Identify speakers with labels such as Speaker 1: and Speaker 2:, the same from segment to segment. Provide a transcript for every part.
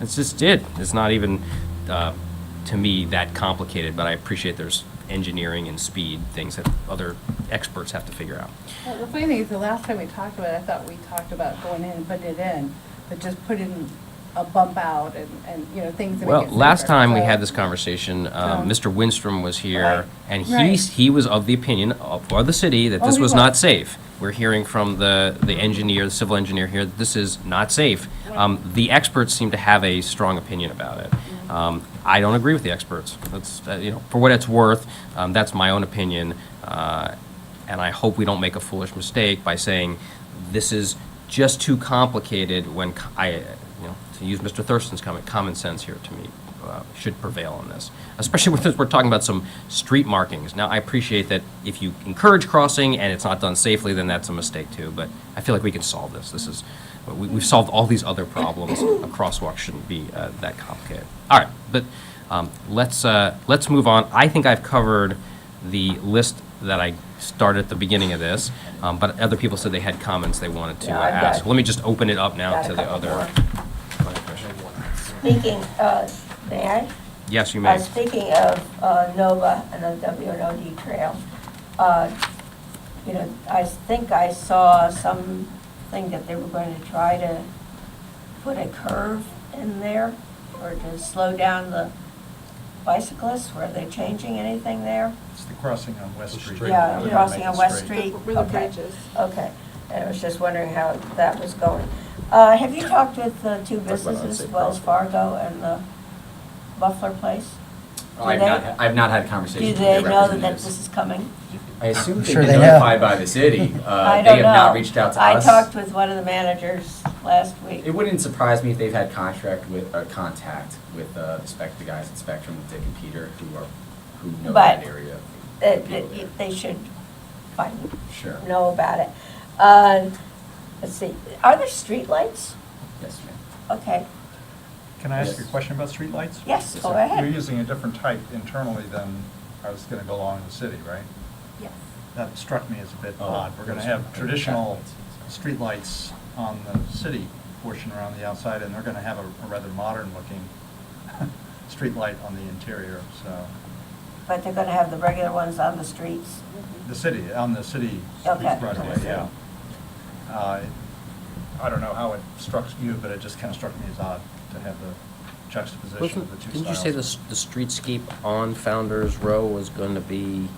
Speaker 1: It's just it. It's not even, uh, to me, that complicated, but I appreciate there's engineering and speed, things that other experts have to figure out.
Speaker 2: Well, the funny thing is, the last time we talked about it, I thought we talked about going in and putting it in, but just putting a bump out and, and, you know, things that make
Speaker 1: Well,
Speaker 2: it
Speaker 1: last
Speaker 2: safer.
Speaker 1: time we
Speaker 2: So-
Speaker 1: had this conversation, uh,
Speaker 2: So-
Speaker 1: Mr. Winstrom was
Speaker 2: Right.
Speaker 1: here, and he,
Speaker 2: Right.
Speaker 1: he was of the opinion of, for the city that
Speaker 2: Oh,
Speaker 1: this
Speaker 2: he
Speaker 1: was not
Speaker 2: was.
Speaker 1: safe. We're hearing from the, the engineer, the civil engineer here, that this is not safe. Um, The experts seem to have a strong opinion about
Speaker 2: Mm-hmm.
Speaker 1: it. Um, I don't agree with the experts. That's, uh, you know, for what it's worth, um, that's my own opinion. uh, And I hope we don't make a foolish mistake by saying, this is just too complicated when co- I, you know, to use Mr. Thurston's comment, common sense here to me uh, should prevail on this, especially when we're talking about some street markings. Now, I appreciate that if you encourage crossing and it's not done safely, then that's a mistake too, but I feel like we can solve this. This is, we- we've solved all these other problems. A crosswalk shouldn't be uh, that complicated. All right, but um, let's, uh, let's move on. I think I've covered the list that I started at the beginning of this, um, but other people said they had comments they wanted to uh,
Speaker 3: Yeah, I've got-
Speaker 1: ask. Let me just open it up now
Speaker 3: got a
Speaker 1: to the
Speaker 3: couple
Speaker 1: other.
Speaker 3: Speaking, uh, may I?
Speaker 1: Yes, you
Speaker 3: Uh,
Speaker 1: may.
Speaker 3: Speaking of uh, NOVA and the WNOD trail, uh, you know, I think I saw something that they were going to try to put a curve in there or to slow down the bicyclists. Were they changing anything there?
Speaker 4: It's the crossing on West Street.
Speaker 3: Yeah,
Speaker 4: We're gonna
Speaker 3: crossing
Speaker 4: make
Speaker 3: on
Speaker 4: it
Speaker 3: West
Speaker 4: straight.
Speaker 3: Street.
Speaker 5: Where the
Speaker 3: Okay.
Speaker 5: bridge is.
Speaker 3: Okay, and I was just wondering how that was going. Uh, Have you talked with the two
Speaker 6: That's what I'd say,
Speaker 3: businesses, Wells
Speaker 6: probably.
Speaker 3: Fargo and the Buffler Place? Do
Speaker 6: I've
Speaker 3: they-
Speaker 6: Oh, not, I've not had
Speaker 3: Do
Speaker 6: conversations with
Speaker 3: they
Speaker 6: their
Speaker 3: know that this
Speaker 6: representatives.
Speaker 3: is coming?
Speaker 6: I assume they've
Speaker 7: Sure
Speaker 6: been
Speaker 7: they know.
Speaker 6: notified by the city.
Speaker 3: I
Speaker 6: Uh, They
Speaker 3: don't
Speaker 6: have
Speaker 3: know.
Speaker 6: not reached out to
Speaker 3: I
Speaker 6: us.
Speaker 3: talked with one of the managers last week.
Speaker 6: It wouldn't surprise me if they've had contract with, uh, contact with, uh, the spec, the guys at Spectrum, with Dick and Peter, who are, who know
Speaker 3: But
Speaker 6: that area. the
Speaker 3: That-
Speaker 6: people
Speaker 3: that
Speaker 6: there.
Speaker 3: you- They should find,
Speaker 6: Sure.
Speaker 3: know about it. Uh, Let's see, are there streetlights?
Speaker 6: Yes, ma'am.
Speaker 3: Okay,
Speaker 4: Can I ask
Speaker 6: Yes.
Speaker 4: you a question about streetlights?
Speaker 3: yes,
Speaker 6: Yes,
Speaker 3: go
Speaker 6: sir.
Speaker 4: You're
Speaker 3: ahead.
Speaker 4: using a different type internally than I was gonna go along the city, right?
Speaker 5: Yes.
Speaker 4: That struck me as a bit
Speaker 6: Oh,
Speaker 4: odd. We're gonna
Speaker 6: those are-
Speaker 4: have traditional streetlights on the city portion around the outside, and they're gonna have a a rather modern-looking streetlight on the interior, so,
Speaker 3: But they're gonna have the regular ones on the streets.
Speaker 4: the city, on the city
Speaker 3: Okay.
Speaker 4: runway, yeah. Uh, I don't know how it struck you, but it just kinda struck me as odd to have the juxtaposition of the two styles.
Speaker 1: Didn't you say the, s- the streetscape on Founder's Row was going to be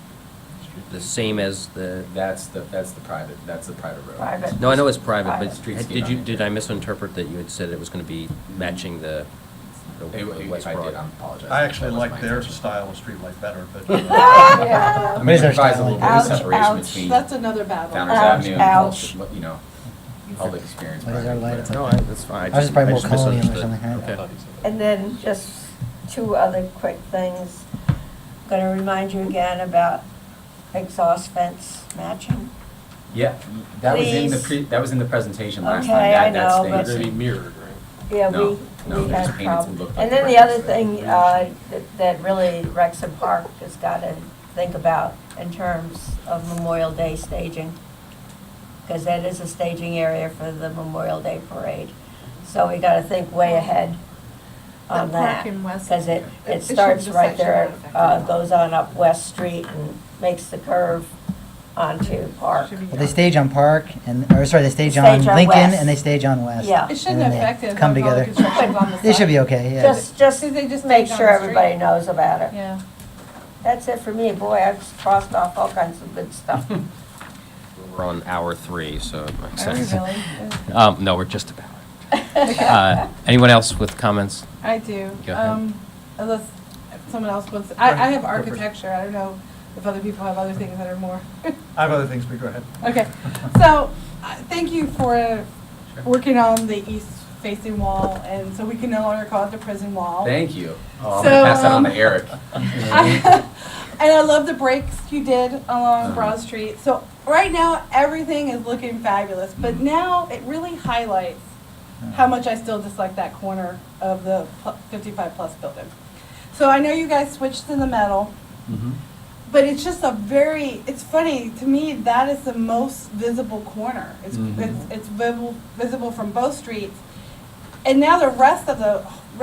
Speaker 1: the same as the,
Speaker 6: That's the, that's the private, that's the private road.
Speaker 3: Private.
Speaker 1: no, I know it's private, but
Speaker 6: Private.
Speaker 1: did you, did I misinterpret that you had said it was going to be matching the the
Speaker 6: If- if
Speaker 1: West
Speaker 6: I did, um.
Speaker 1: Broad?
Speaker 6: I'm apologizing.
Speaker 4: I actually
Speaker 6: That was
Speaker 4: like
Speaker 6: my
Speaker 4: their
Speaker 6: intention.
Speaker 4: style of streetlight better, but. uh,
Speaker 6: I
Speaker 3: Yeah.
Speaker 6: mean,
Speaker 7: Is there
Speaker 6: it provides a little bit
Speaker 3: styling?
Speaker 6: of
Speaker 3: Ouch,
Speaker 6: separation
Speaker 3: ouch.
Speaker 6: between
Speaker 5: That's another battle.
Speaker 6: Founder's
Speaker 3: Ouch,
Speaker 6: Avenue and
Speaker 3: ouch.
Speaker 6: Pulse, you know, public experience.
Speaker 7: What is our
Speaker 6: project,
Speaker 7: light?
Speaker 6: but-
Speaker 7: It's like-
Speaker 1: No, I- that's fine.
Speaker 7: I was just probably more
Speaker 1: I
Speaker 7: colonial or
Speaker 1: misunderstood.
Speaker 7: something, right?
Speaker 1: Okay.
Speaker 3: And then just two other quick things. Going to remind you again about exhaust fence matching.
Speaker 6: Yeah, that was in the
Speaker 3: Please.
Speaker 6: pre, that was in the presentation last
Speaker 3: Okay,
Speaker 6: time.
Speaker 3: I
Speaker 6: That, that
Speaker 3: know,
Speaker 6: stayed.
Speaker 3: but-
Speaker 6: They're gonna be mirrored.
Speaker 3: Yeah,
Speaker 6: No,
Speaker 3: we,
Speaker 6: no,
Speaker 3: we
Speaker 6: they
Speaker 3: had
Speaker 6: just painted some
Speaker 3: problems.
Speaker 6: look like
Speaker 3: And then the
Speaker 6: bricks,
Speaker 3: other
Speaker 6: but-
Speaker 3: thing uh, that- that really Rexham Park has got to think about in terms of Memorial Day staging, because that is a staging area for the Memorial Day Parade. So we got to think way ahead
Speaker 5: That
Speaker 3: on that.
Speaker 5: park in West-
Speaker 3: Because it,
Speaker 5: it-
Speaker 3: it
Speaker 5: it should
Speaker 3: starts
Speaker 5: just
Speaker 3: right
Speaker 5: actually
Speaker 3: there,
Speaker 5: not affect
Speaker 3: uh,
Speaker 5: it.
Speaker 3: goes on up West Street and makes the curve onto Park.
Speaker 5: Should be
Speaker 7: Well, they
Speaker 5: done.
Speaker 7: stage on Park and, or sorry, they stage
Speaker 3: Stage
Speaker 7: on
Speaker 3: on
Speaker 7: Lincoln
Speaker 3: West.
Speaker 7: and they stage on West.
Speaker 3: Yeah.
Speaker 7: And
Speaker 5: It shouldn't
Speaker 7: then they
Speaker 5: affect it.
Speaker 7: Come
Speaker 5: if all the
Speaker 7: together.
Speaker 5: construction's on the
Speaker 7: They should
Speaker 5: side.
Speaker 7: be okay, yeah.
Speaker 3: Just, just
Speaker 5: They just
Speaker 3: make
Speaker 5: staged on
Speaker 3: sure
Speaker 5: the street.
Speaker 3: everybody knows about it.
Speaker 5: Yeah.
Speaker 3: That's it for me. Boy, I've crossed off all kinds of good stuff.
Speaker 1: We're on hour three, so it makes
Speaker 5: Are we
Speaker 1: sense.
Speaker 5: really?
Speaker 1: Um, no, we're just about. Uh, Anyone else with comments?
Speaker 5: I do.
Speaker 1: Go ahead.
Speaker 5: Um, unless someone else wants,
Speaker 4: Go
Speaker 5: I,
Speaker 4: ahead.
Speaker 5: I have
Speaker 4: Go first.
Speaker 5: architecture. I don't know if other people have other things that are more.
Speaker 4: I have other things, but go ahead.
Speaker 5: Okay, so, uh, thank you for working on the east facing wall, and so we can no longer call it the prison wall.
Speaker 6: Thank you. Oh, I'm
Speaker 5: So,
Speaker 6: gonna pass that on
Speaker 5: um,
Speaker 6: to Eric.
Speaker 5: I- and I love the breaks you did along Broad Street. So right now everything is looking fabulous, but now it really highlights how much I still dislike that corner of the pl- 55 plus building. So I know you guys switched in the metal, but it's just a very it's funny to me that is the most visible corner. It's it's, it's visible visible from both streets. And now the rest of the